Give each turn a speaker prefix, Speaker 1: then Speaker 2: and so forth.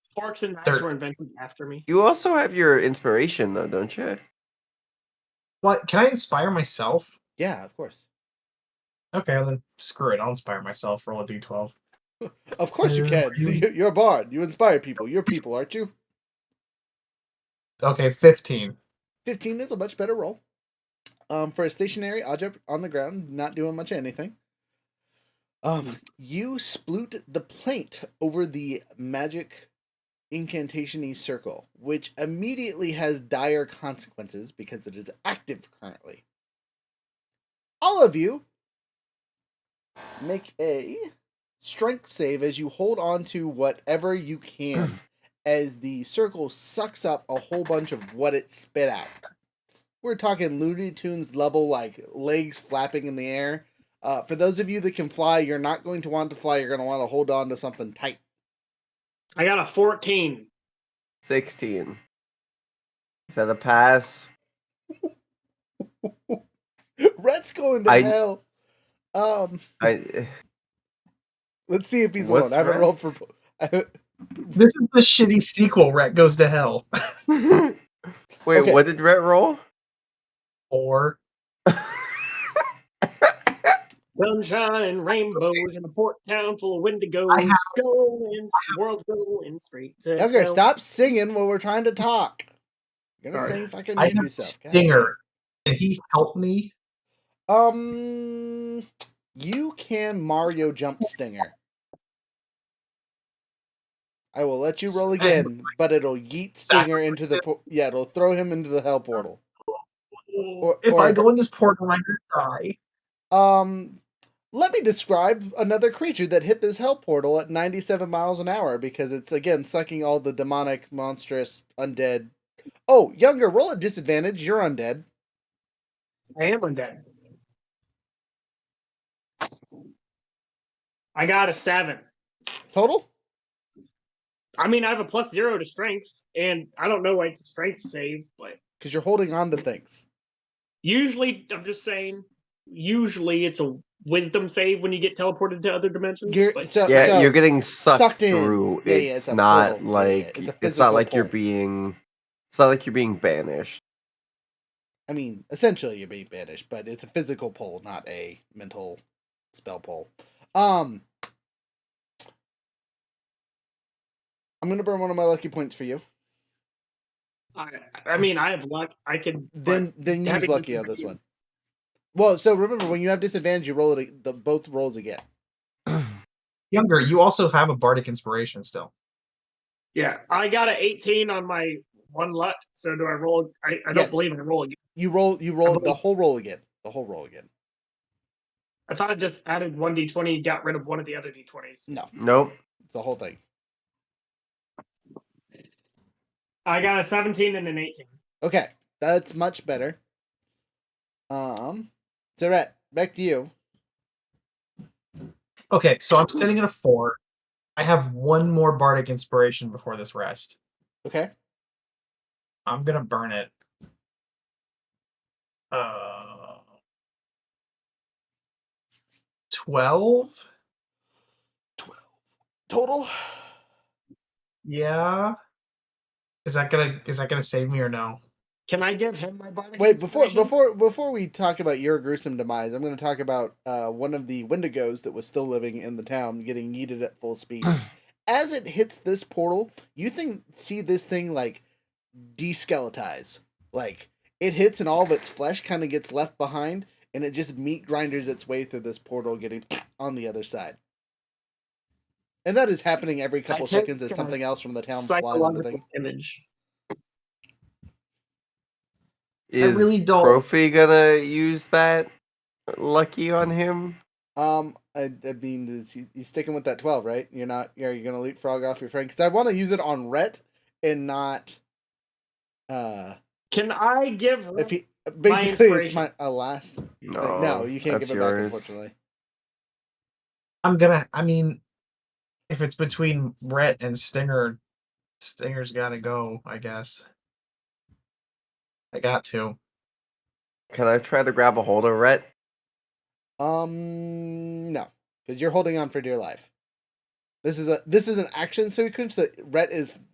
Speaker 1: Forks and knives
Speaker 2: Third.
Speaker 1: were invented after me.
Speaker 3: You also have your inspiration though, don't you?
Speaker 2: What? Can I inspire myself?
Speaker 4: Yeah, of course.
Speaker 2: Okay, then screw it. I'll inspire myself. Roll a d12.
Speaker 4: Of course you
Speaker 2: Uh,
Speaker 4: can.
Speaker 2: you-
Speaker 4: You- You're a bard. You inspire people. You're people, aren't you?
Speaker 2: Okay, 15.
Speaker 4: 15 is a much better roll. Um, for a stationary object on the ground, not doing much of anything. Um, you sploot the plaint over the magic incantation circle, which immediately has dire consequences because it is active currently. All of you make a strength save as you hold on to whatever you can as the circle sucks up a whole bunch of what it spit out. We're talking Looney Tunes level, like legs flapping in the air. Uh, for those of you that can fly, you're not going to want to fly. You're going to want to hold on to something tight.
Speaker 1: I got a 14.
Speaker 3: Sixteen. Is that a pass?
Speaker 4: Rhett's going to
Speaker 3: I-
Speaker 4: hell. Um,
Speaker 3: I
Speaker 4: let's see if he's
Speaker 3: What's
Speaker 4: alone. I haven't rolled for.
Speaker 3: Rhett's?
Speaker 4: I,
Speaker 2: This is the shitty sequel, Ret Goes to Hell.
Speaker 3: Wait,
Speaker 4: Okay.
Speaker 3: what did Rhett roll?
Speaker 2: Or
Speaker 1: Sunshine and rainbows in a port town full of wendigos.
Speaker 2: I have-
Speaker 1: Going, world going straight to
Speaker 4: okay,
Speaker 1: hell.
Speaker 4: stop singing while we're trying to talk. You're gonna
Speaker 2: Sorry.
Speaker 4: sing fucking
Speaker 2: I
Speaker 4: name
Speaker 2: have
Speaker 4: yourself. God
Speaker 2: Stinger. Did he help me?
Speaker 4: Um, you can Mario jump stinger. I will let you roll
Speaker 2: And-
Speaker 4: again, but it'll yeet Stinger into the por- yeah, it'll throw him into the hell portal. Or-
Speaker 2: if
Speaker 4: or-
Speaker 2: I go in this portal, I'm gonna die.
Speaker 4: Um, let me describe another creature that hit this hell portal at 97 miles an hour because it's again sucking all the demonic, monstrous, undead. Oh, younger, roll at disadvantage. You're undead.
Speaker 1: I am undead. I got a seven.
Speaker 4: Total.
Speaker 1: I mean, I have a plus zero to strength, and I don't know why it's a strength save, but
Speaker 4: Because you're holding on to things.
Speaker 1: usually, I'm just saying, usually it's a wisdom save when you get teleported to other dimensions.
Speaker 4: You're,
Speaker 1: but
Speaker 4: so,
Speaker 3: yeah,
Speaker 4: so-
Speaker 3: you're getting sucked,
Speaker 4: sucked in.
Speaker 3: through.
Speaker 4: Yeah, yeah,
Speaker 3: it's,
Speaker 4: it's a
Speaker 3: not
Speaker 4: portal. Yeah, yeah,
Speaker 3: like
Speaker 4: it's a
Speaker 3: it's,
Speaker 4: physical
Speaker 3: not like you're
Speaker 4: portal.
Speaker 3: being it's not like you're being banished.
Speaker 4: I mean, essentially you're being banished, but it's a physical pull, not a mental spell pull. Um I'm gonna burn one of my lucky points for you.
Speaker 1: I, I mean, I have luck. I could
Speaker 4: Then then use
Speaker 1: having
Speaker 4: lucky on this one. Well, so remember when you have disadvantage, you roll it the both rolls again.
Speaker 2: Younger, you also have a bardic inspiration still.
Speaker 1: yeah, I got a 18 on my one luck. So do I roll? I, I don't
Speaker 4: Yes.
Speaker 1: believe I roll again.
Speaker 4: You roll you roll the
Speaker 1: believe-
Speaker 4: whole roll again. The whole roll again.
Speaker 1: I thought I just added one d20, got rid of one of the other d20s.
Speaker 4: No,
Speaker 3: Nope.
Speaker 4: it's the whole thing.
Speaker 1: I got a 17 and an 18.
Speaker 4: Okay, that's much better. Um, Zaret, back to you.
Speaker 2: Okay, so I'm sitting at a four. I have one more bardic inspiration before this rest.
Speaker 4: Okay,
Speaker 2: I'm gonna burn it. Uh, twelve.
Speaker 4: total.
Speaker 2: Yeah. Is that gonna is that gonna save me or no?
Speaker 1: Can I give him my bardic
Speaker 4: Wait, before
Speaker 1: inspiration?
Speaker 4: before before we talk about your gruesome demise, I'm going to talk about uh, one of the Wendigos that was still living in the town, getting yeeted at full speed. As it hits this portal, you think see this thing like deskeletize, like it hits and all of its flesh kind of gets left behind, and it just meat grinders its way through this portal, getting on the other side. And that is happening every couple
Speaker 1: take
Speaker 4: seconds as
Speaker 1: a
Speaker 4: something else from the town flies on the thing.
Speaker 1: psychological image.
Speaker 3: Is
Speaker 2: really don't-
Speaker 3: Profi gonna use that lucky on him?
Speaker 4: Um, I, I mean, is he, he's sticking with that twelve, right? You're not. Are you gonna leapfrog off your friend? Because I want to use it on Rhett and not. Uh,
Speaker 1: Can I give
Speaker 4: if he basically it's
Speaker 1: inspiration.
Speaker 4: my uh, last. like,
Speaker 3: No,
Speaker 4: no, you can't
Speaker 3: that's
Speaker 4: give it back.
Speaker 3: yours.
Speaker 4: Unfortunately,
Speaker 2: I'm gonna. I mean, if it's between Rhett and Stinger, Stinger's gotta go. I guess. I got to.
Speaker 3: Can I try to grab a hold of Rhett?
Speaker 4: um, no, because you're holding on for dear life. This is a this is an action sequence that Rhett is